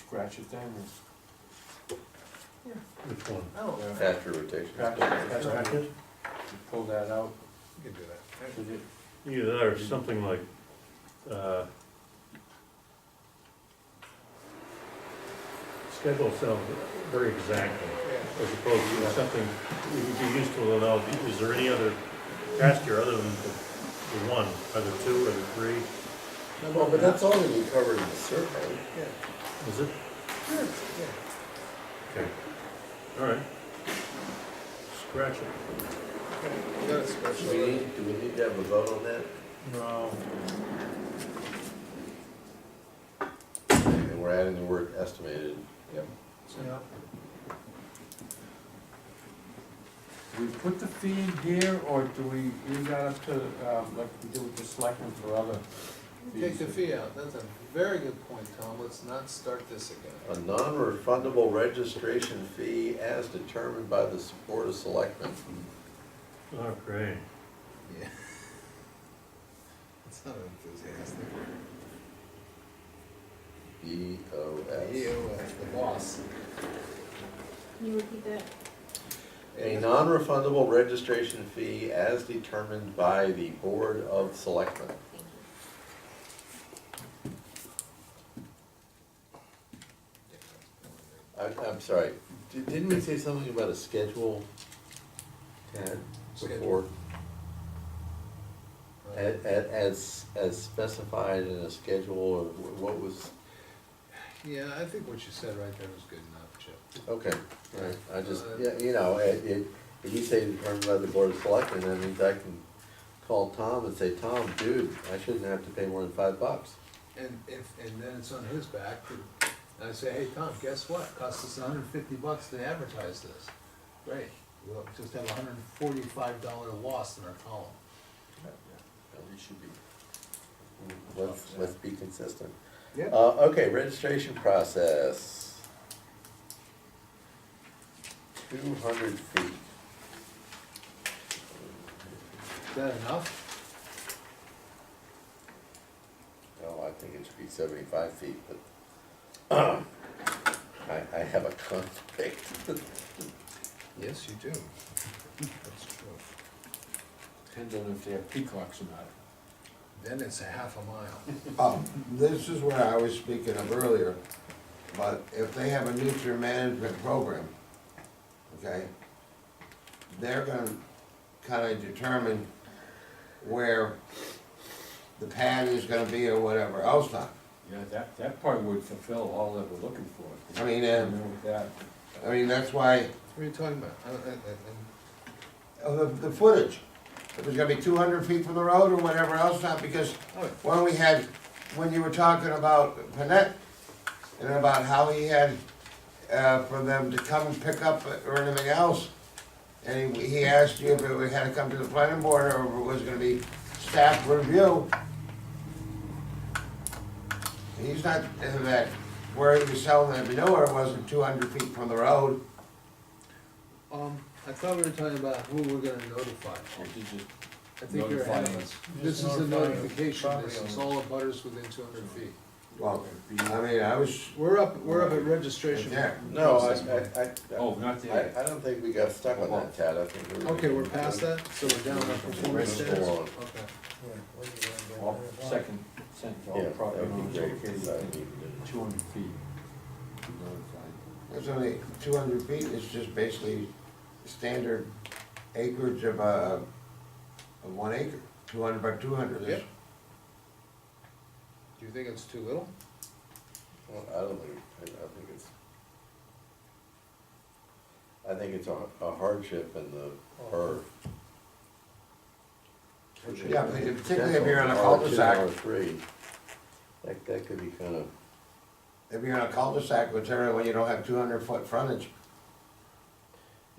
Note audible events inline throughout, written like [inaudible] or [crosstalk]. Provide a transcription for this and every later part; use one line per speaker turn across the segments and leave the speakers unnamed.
scratch it down.
Which one?
Oh,
Yeah.
After rotation.
After rotation. That's right.
Bracket?
You Pull that out,
you can do that.
did it,
Either that or something like, uh, schedule sounds very exacting,
Yeah.
as opposed to something that would be useful to know, is there any other pasture other than the the one, or the two, or the three?
Well, but that's all that we covered in the survey.
Yeah,
Is it?
yeah.
Okay. All right. Scratch it.
Okay, we got a
Do
special-
we need, do we need to have a vote on that?
no,
And we're adding the word estimated. Yep.
Yeah.
do we put the fee in here, or do we leave that up to, um, like we do with the selectmen for other
Take
fees?
the fee out, that's a very good point, Tom, let's not start this again.
A non-refundable registration fee as determined by the Board of Selectmen.
Oh, great.
Yeah. [laughs] It's not enthusiastic.
B O
You,
S.
uh, the boss.
Can you repeat that?
A non-refundable registration fee as determined by the Board of Selectmen.
Thank you.
I, I'm sorry, di- didn't we say something about a schedule? Ted, before?
Schedule.
As, as, as specified in a schedule or wh- what was,
Yeah, I think what you said right there was good enough, Chip.
okay, all right, I just, yeah, you know, it, it, if you say determined by the board of selectmen, that means I can call Tom and say, Tom, dude, I shouldn't have to pay more than five bucks.
And if, and then it's on his back, and I say, hey, Tom, guess what, cost us hundred and fifty bucks to advertise this. Great, we'll just have a hundred and forty-five dollar loss in our column.
We should be. Let's, let's be consistent.
Yep.
Uh, okay, registration process. Two hundred feet.
Is that enough?
Oh, I think it should be seventy-five feet, but [clears throat] I, I have a conflict.
Yes, you [laughs] do. That's true.
Depends on if they have peacocks or not.
Then it's a half a mile.
Oh, this is where I was speaking of earlier, but if they have a nutrient management program, okay, they're gonna kinda determine where the pad is gonna be or whatever else not.
Yeah, that, that part would fulfill all that we're looking for.
I
You
mean, um,
know, With that,
I mean, that's why,
What are you talking about? I don't- I- I-
of the, the footage, if it's gonna be two hundred feet from the road or whatever else not, because
I- oh,
when we had, when you were talking about Panett, and about how he had, uh, for them to come and pick up or anything else, and he, he asked you if it had to come to the planning board, or if it was gonna be staff review. He's not, uh, that, where he was selling the manure wasn't two hundred feet from the road,
Um, I thought we were talking about who we're gonna notify.
or did you,
I think you're
Notify
ahead of
them.
us. This is a notification, this is all the butters within two hundred feet.
well, I mean, I was,
We're up, we're up at registration.
yeah,
No, I, I, I-
oh, not
I,
there.
I don't think we got stuck on that, Tad, I think we were.
Okay, we're past that, so we're down on performance standards?
Go on.
Okay.
All second sentence, all
Yeah,
property
that would
owners
be great, 'cause I
located
need to-
two hundred feet. Notified.
It's only two hundred feet, it's just basically standard acreage of a, of one acre, two hundred by two hundred is.
Yep. Do you think it's too little?
Well, I don't think, I, I think it's. I think it's a a hardship in the, or.
Yeah, but particularly if you're in a cul-de-sac,
Or three, like, that could be kind of,
if you're in a cul-de-sac, which area when you don't have two hundred foot frontage,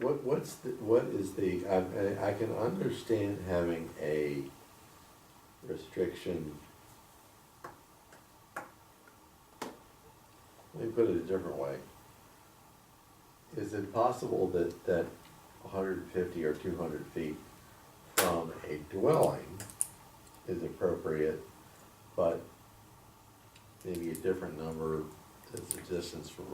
what, what's the, what is the, I- I, I can understand having a restriction. Let me put it a different way. Is it possible that, that hundred and fifty or two hundred feet from a dwelling is appropriate, but maybe a different number That's the distance from